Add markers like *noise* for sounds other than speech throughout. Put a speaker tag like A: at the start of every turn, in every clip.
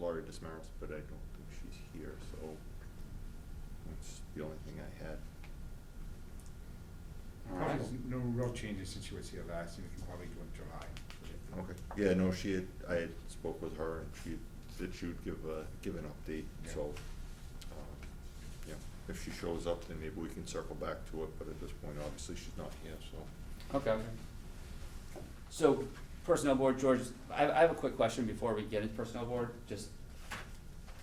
A: Carrie Dismaris, but I don't think she's here, so that's the only thing I had.
B: All right.
C: Probably No real changes since she was here last, and we can probably do it in July.
A: Okay, yeah, no, she had, I had spoke with her and she said she would give a, give an update,
C: Yeah.
A: so, um, yeah. If she shows up, then maybe we can circle back to it, but at this point, obviously, she's not here, so.
B: Okay.
D: So, personnel board, George, I, I have a quick question before we get into personnel board, just,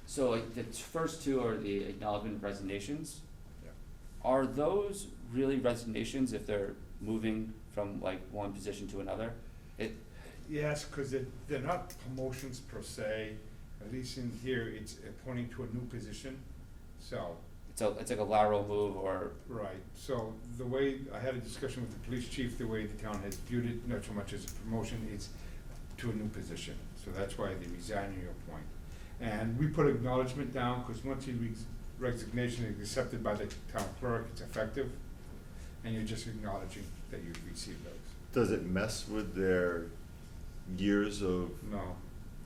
D: so like, the t- first two are the acknowledgement of resignations.
C: Yeah.
D: Are those really resignations if they're moving from like one position to another? It,
C: Yes, because they're, they're not promotions per se, at least in here, it's appointing to a new position, so,
D: it's a, it's like a lateral move or,
C: right. So the way, I had a discussion with the police chief, the way the town has viewed it, not so much as a promotion, it's to a new position, so that's why they resign or you appoint. And we put acknowledgement down, because once your res- resignation is accepted by the town clerk, it's effective, and you're just acknowledging that you've received those.
A: Does it mess with their years of,
C: No,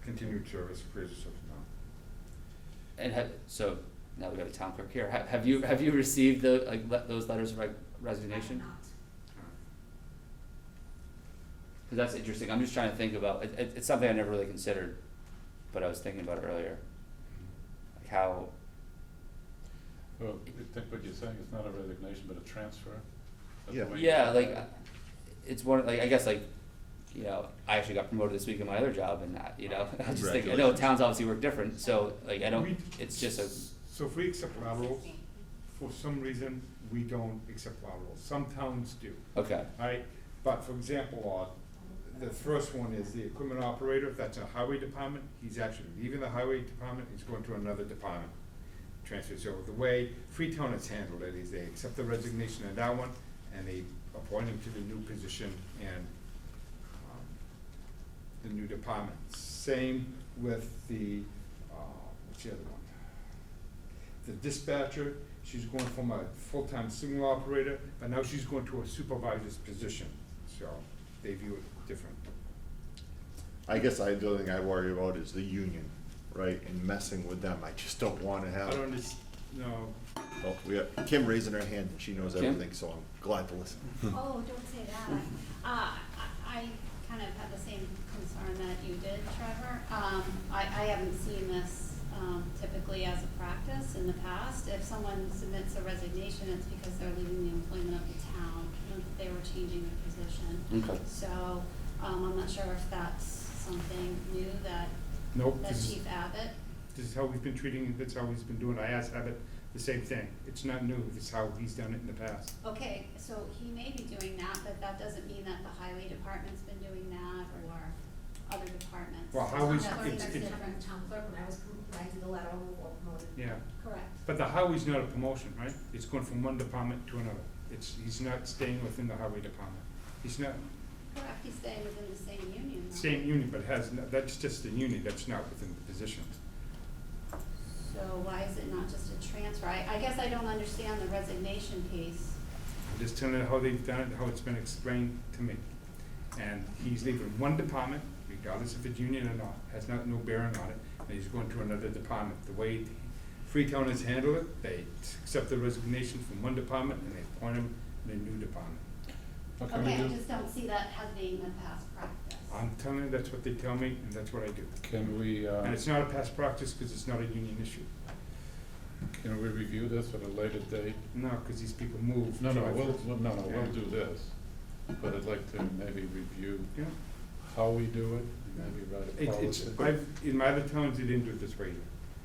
C: continued service, career service, no.
D: and have, so, now we got a town clerk here, have, have you, have you received the, like, le- those letters of re- resignation?
E: I have not.
D: Cause that's interesting, I'm just trying to think about, it, it, it's something I never really considered, but I was thinking about it earlier. Like how,
F: Well, I think what you're saying is not a resignation, but a transfer. That's the
A: Yeah.
F: way you-
D: yeah, like, uh, it's one, like, I guess like, you know, I actually got promoted this week in my other job and that, you know? *laughs* I just think, I know
A: Congratulations.
D: towns obviously work different, so like, I
C: We-
D: don't, it's just a,
C: So if we accept laterals, for some reason, we don't accept laterals. Some towns do,
D: okay,
C: right? But for example, uh, the first one is the equipment operator, if that's a highway department, he's actually leaving the highway department, he's going to another department. Transfer, so the way Freetown has handled it is they accept the resignation of that one, and they appoint him to the new position and, um, the new department. Same with the, uh, what's the other one? The dispatcher, she's going from a full-time signal operator, but now she's going to a supervisor's position, so they view it different.
A: I guess I, the only thing I worry about is the union, right, and messing with them, I just don't wanna
C: I
A: have.
C: don't understand, no,
A: Oh, we have Kim raising her hand, and she knows
D: Kim?
A: everything, so I'm glad to listen.
E: Oh, don't say that. Uh, I, I kind of had the same concern that you did, Trevor. Um, I, I haven't seen this, um, typically as a practice in the past. If someone submits a resignation, it's because they're leaving the employment of the town, not that they were changing their position.
D: okay.
E: So, um, I'm not sure if that's something new that,
C: nope,
E: that
C: Oh, this is,
E: Chief Abbott,
C: this is how we've been treating it, that's how he's been doing it. I asked Abbott the same thing. It's not new, it's how he's done it in the past.
E: okay, so he may be doing that, but that doesn't mean that the highway department's been doing that or other departments.
C: Well, how is-
E: That's-
C: it's-
E: that's
C: it's-
E: different.
G: From town clerk, when I was, prom- when I did the lateral move or promoted.
C: Yeah,
E: Correct.
C: but the highway's not a promotion, right? It's going from one department to another. It's, he's not staying within the highway department. He's not,
E: Correct, he's staying within the same union, though.
C: same union, but has, no- that's just the union, that's not within the position.
E: So why is it not just a transfer? I, I guess I don't understand the resignation piece.
C: I'm Just telling you how they've done it, how it's been explained to me. And he's leaving one department, regardless if it's union or not, has not, no bearing on it, and he's going to another department. The way Freetown has handled it, they accept the resignation from one department and they appoint him in a new department.
D: uh,
F: What can we
E: Okay, I
F: do?
E: just don't see that as being the past practice.
C: I'm telling you, that's what they tell me, and that's what I do.
F: Can we, uh,
C: And it's not a past practice, because it's not a union issue.
F: can we review this at a later date?
C: No, because these people move.
F: No, no,
C: July
F: we'll,
C: first.
F: we'll- no, no,
C: Yeah.
F: we'll do this, but I'd like to maybe review
C: Yeah.
F: how we do it, and maybe write a
C: It- It's,
F: policy.
C: I've, in my other towns, they didn't do it this way,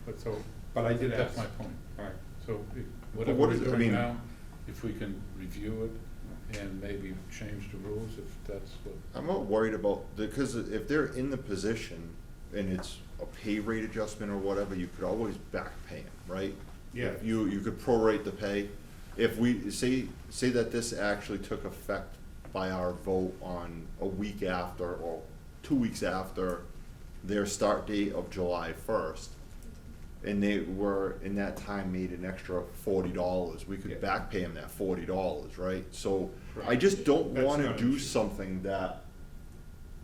F: But so,
C: but I did ask.
F: that's my point.
C: All right.
F: So i-
A: But
F: whatever
A: what
F: we're
A: is it- I
F: doing
A: mean-
F: now, if we can review it and maybe change the rules, if that's what,
A: I'm not worried about, because if they're in the position and it's a pay rate adjustment or whatever, you could always back pay them, right?
C: Yeah.
A: You, you could prorate the pay. If we, say, say that this actually took effect by our vote on a week after or two weeks after their start date of July first, and they were, in that time, made an extra forty dollars, we
C: Yeah.
A: could back pay them that forty dollars, right? So I
C: Correct.
A: just don't
C: That's
A: wanna
C: not an
A: do
C: issue.
A: something that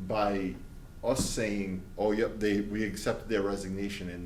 A: by us saying, oh, yep, they, we accept their resignation and